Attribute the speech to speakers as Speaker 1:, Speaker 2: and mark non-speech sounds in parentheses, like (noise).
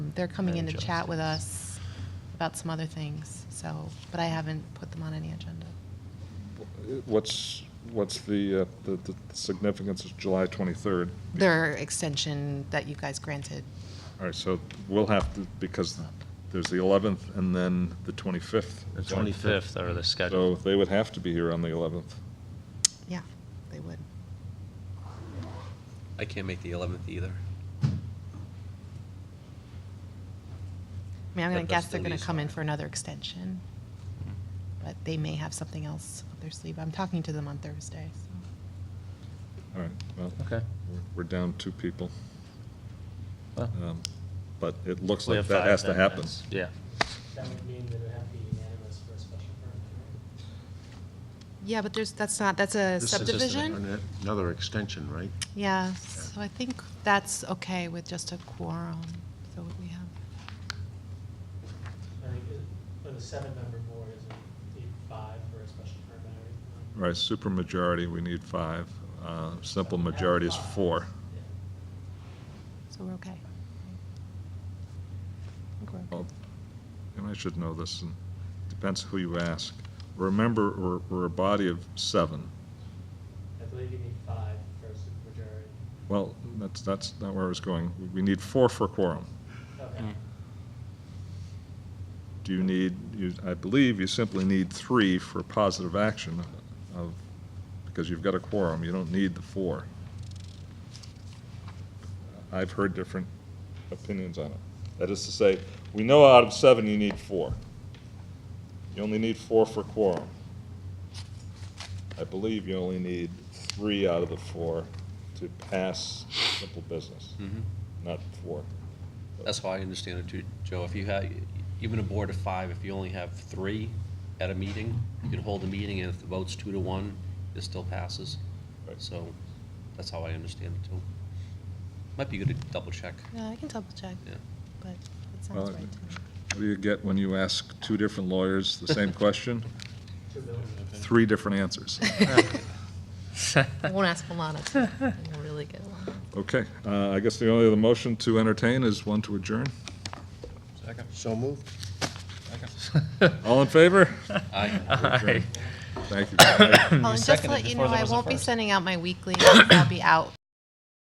Speaker 1: Um, They're coming in
Speaker 2: Very
Speaker 1: to
Speaker 2: jealous.
Speaker 1: chat with us about some other things, so, but I haven't put them on any agenda.
Speaker 3: What's, what's the, uh, the the significance of July 23rd?
Speaker 1: Their extension that you guys granted.
Speaker 3: All right, so we'll have to, because there's the 11th and then the 25th.
Speaker 2: The 25th are the
Speaker 3: So
Speaker 2: scheduled.
Speaker 3: they would have to be here on the 11th.
Speaker 1: Yeah, they would.
Speaker 4: I can't make the 11th either.
Speaker 1: I mean, I'm going to
Speaker 4: But
Speaker 1: guess
Speaker 4: that's
Speaker 1: they're
Speaker 4: the
Speaker 1: going to
Speaker 4: lease
Speaker 1: come in
Speaker 4: on it.
Speaker 1: for another extension,
Speaker 2: Mm-hmm.
Speaker 1: but they may have something else up their sleeve. I'm talking to them on Thursday, so.
Speaker 3: All right, well,
Speaker 2: Okay.
Speaker 3: we're- we're down two people,
Speaker 2: Well,
Speaker 3: Um, but it looks
Speaker 2: we
Speaker 3: like
Speaker 2: have
Speaker 3: that
Speaker 2: five
Speaker 3: has to
Speaker 2: then,
Speaker 3: happen.
Speaker 2: that's- Yeah.
Speaker 5: That would mean that it would have to be unanimous for a special permit, right?
Speaker 1: Yeah, but there's, that's not, that's a
Speaker 2: This is just an
Speaker 1: subdivision?
Speaker 6: An- Another extension, right?
Speaker 1: Yeah, so I think that's okay with just a quorum, so we have.
Speaker 5: I think it- for the seven-member board, is it need five for a special permit or
Speaker 3: Right,
Speaker 5: anything?
Speaker 3: supermajority, we need five. Uh, Simple majority is four.
Speaker 1: So we're okay. right? I think we're
Speaker 3: Well,
Speaker 1: okay.
Speaker 3: And I should know this, and depends who you ask. Remember, we're, we're a body of seven.
Speaker 5: I believe you need five for a supermajority.
Speaker 3: Well, that's, that's not where I was going. We need four for quorum.
Speaker 5: Okay.
Speaker 3: Do you need, you, I believe you simply need three for positive action of, because you've got a quorum, you don't need the four. I've heard different opinions on it. That is to say, we know out of seven, you need four. You only need four for quorum. I believe you only need three out of the four to pass simple business, not four.
Speaker 4: That's how I understand it too, Joe. If you have, even a board of five, if you only have three at a meeting, you can hold a meeting, and if the vote's two to one, it still passes.
Speaker 3: Right.
Speaker 4: So that's how I understand it too. Might be good to double check.
Speaker 1: Yeah, I can double check,
Speaker 4: Yeah.
Speaker 1: but it
Speaker 3: Well,
Speaker 1: sounds right to me.
Speaker 3: What do you get when you ask two different lawyers
Speaker 1: (laughs)
Speaker 3: the same question?
Speaker 5: Two bills.
Speaker 3: Three different answers. (laughs)
Speaker 1: I won't ask Alana. I really good Alana.
Speaker 3: Okay, uh, I guess the only other motion to entertain is one to adjourn.
Speaker 6: So moved.
Speaker 3: All
Speaker 1: (laughs)
Speaker 3: in favor?
Speaker 4: Aye.
Speaker 2: Aye.
Speaker 3: Thank you.
Speaker 1: Well, and just to
Speaker 2: seconded
Speaker 1: (clears throat) let you know,
Speaker 2: before there
Speaker 1: I
Speaker 2: was a
Speaker 1: won't be
Speaker 2: first.
Speaker 1: sending out my weekly, I'll be out